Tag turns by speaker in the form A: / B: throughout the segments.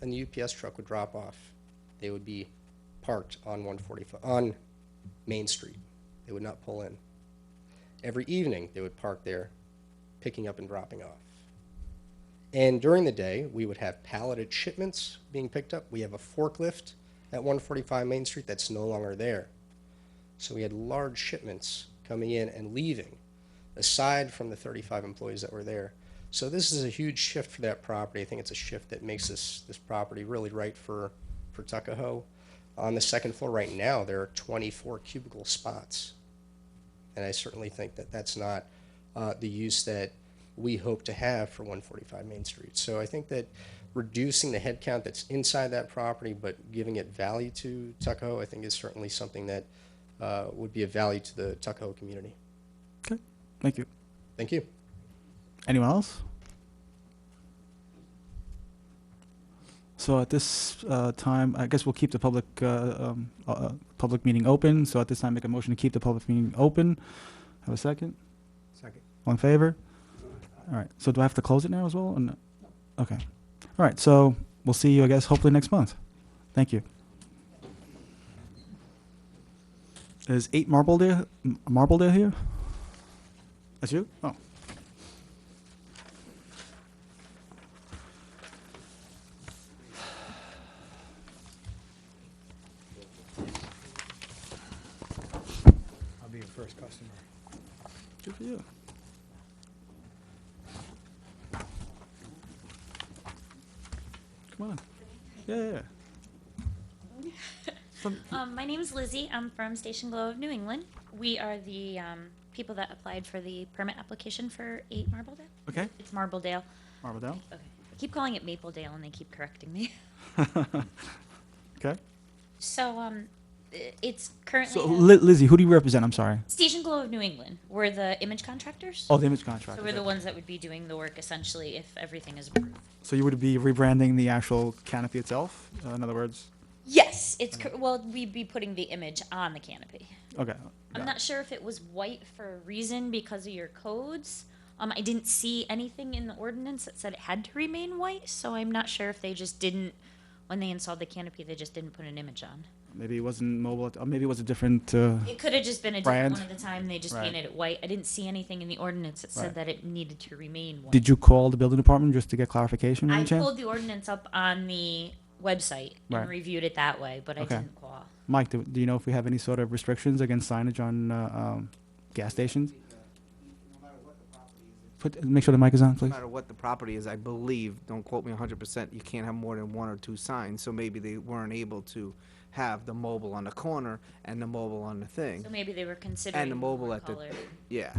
A: and the UPS truck would drop off. They would be parked on 145, on Main Street. They would not pull in. Every evening, they would park there, picking up and dropping off. And during the day, we would have palleted shipments being picked up. We have a forklift at 145 Main Street that's no longer there. So we had large shipments coming in and leaving, aside from the 35 employees that were there. So this is a huge shift for that property. I think it's a shift that makes this, this property really right for, for Tuckahoe. On the second floor right now, there are 24 cubicle spots. And I certainly think that that's not uh, the use that we hope to have for 145 Main Street. So I think that reducing the headcount that's inside that property, but giving it value to Tuckahoe, I think is certainly something that uh, would be of value to the Tuckahoe community.
B: Okay, thank you.
A: Thank you.
B: Anyone else? So at this uh, time, I guess we'll keep the public, uh, um, uh, uh, public meeting open. So at this time, make a motion to keep the public meeting open. Have a second?
C: Second.
B: All in favor? All right, so do I have to close it now as well? or no? Okay. All right, so we'll see you, I guess, hopefully next month. Thank you. Is eight Marbledale, M- Marbledale here? That's you? Oh.
C: I'll be your first customer.
B: Good for you. Come on. Yeah, yeah, yeah. Some,
D: Um, my name is Lizzie. I'm from Station Glow of New England. We are the um, people that applied for the permit application for 8 Marbledale.
B: okay,
D: It's Marbledale.
B: Marbledale.
D: Okay. I keep calling it Mapledale and they keep correcting me.
B: Okay.
D: So um, i- it's currently
B: So,
D: a-
B: Li- Lizzie, who do you represent? I'm sorry.
D: Station Glow of New England. We're the image contractors.
B: Oh, the image contract.
D: so we're the ones that would be doing the work essentially if everything is approved.
B: So you would be rebranding the actual canopy itself. Uh, in other words,
D: Yes, it's
B: Mm.
D: cor- well we'd be putting the image on the canopy.
B: okay.
D: I'm
B: got
D: not sure if it was white for a reason because of your codes. Um, I didn't see anything in the ordinance that said it had to remain white, so I'm not sure if they just didn't, when they installed the canopy, they just didn't put an image on.
B: it. Maybe it wasn't mobile. at- Or maybe it was a different. Uh,
D: It could have just been a
B: Brand.
D: different one at the time, they just
B: Right.
D: painted it white. I didn't see anything in the ordinance that
B: Right.
D: said that it needed to remain white.
B: did you call the building department just to get clarification?
D: I
B: any chance?
D: pulled the ordinance up on the website
B: Right.
D: and reviewed it that way, but I
B: Okay.
D: didn't call.
B: Mike, do, do you know if we have any sort of restrictions against signage on uh, um, gas stations? Put, make sure the mic is on,
C: No
B: please.
C: matter what the property is, I believe, don't quote me hundred percent, you can't have more than one or two signs, so maybe they weren't able to have the mobile on the corner and the mobile on the thing.
D: So maybe they were considering.
C: mobile
D: one
C: at the-
D: color.
C: Yeah.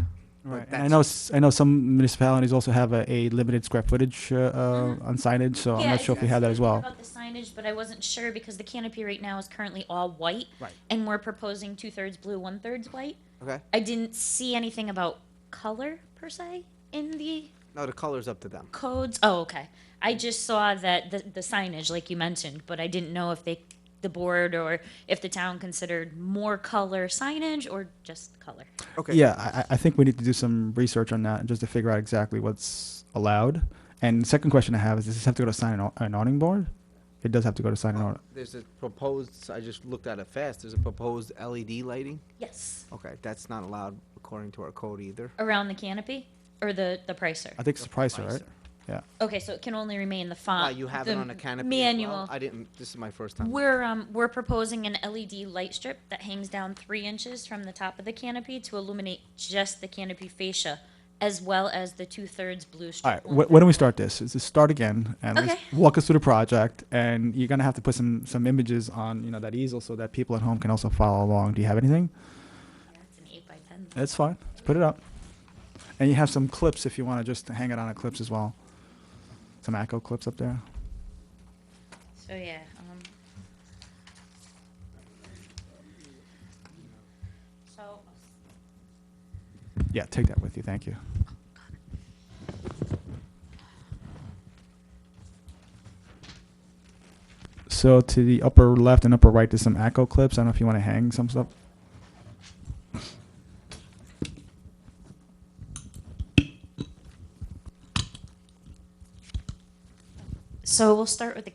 C: but
B: Right. And I
C: that's-
B: know s- I know some municipalities also have a, a limited square footage uh, uh, on signage, so I'm
D: Yeah,
B: not sure if we have that as
D: I thought
B: well.
D: About the signage, but I wasn't sure because the canopy right now is currently all white.
B: Right.
D: And we're proposing two thirds blue, one thirds white.
C: Okay,
D: I didn't see anything about color per se in the
C: no, the color's up to them.
D: codes. Oh, okay. I just saw that the, the signage, like you mentioned, but I didn't know if they, the board or if the town considered more color signage or just color.
C: Okay.
B: Yeah, I, I- I think we need to do some research on that just to figure out exactly what's allowed. And the second question I have is: Does this have to go to sign an, au- an awning board? It does have to go to sign an awning.
C: There's a proposed, I just looked at it fast, there's a proposed LED lighting.
D: Yes.
C: Okay, that's not allowed according to our code either.
D: Around the canopy or the, the pricer.
B: I think it's the pricer, right?
C: Pricer.
B: Yeah.
D: Okay, so it can only remain the font.
C: Why, you have it
D: Uh, the
C: on the canopy as well?
D: Manual.
C: I didn't, this is my first time.
D: We're um, we're proposing an LED light strip that hangs down three inches from the top of the canopy to illuminate just the canopy fascia, as well as the two thirds blue
B: All
D: strip.
B: right. Wh- when do we start this? Is this start again and let's
D: Okay.
B: walk us through the project? And you're gonna have to put some some images on you know that easel so that people at home can also follow along. Do you have anything?
D: That's an eight by ten.
B: That's fine. Let's put it up. And you have some clips if you want to just hang it on a clips as well. Some echo clips up there.
D: So yeah. Um, so
B: Yeah, take that with you. Thank you. So to the upper left and upper right, there's some echo clips. I don't know if you want to hang some stuff.
D: so we'll start with the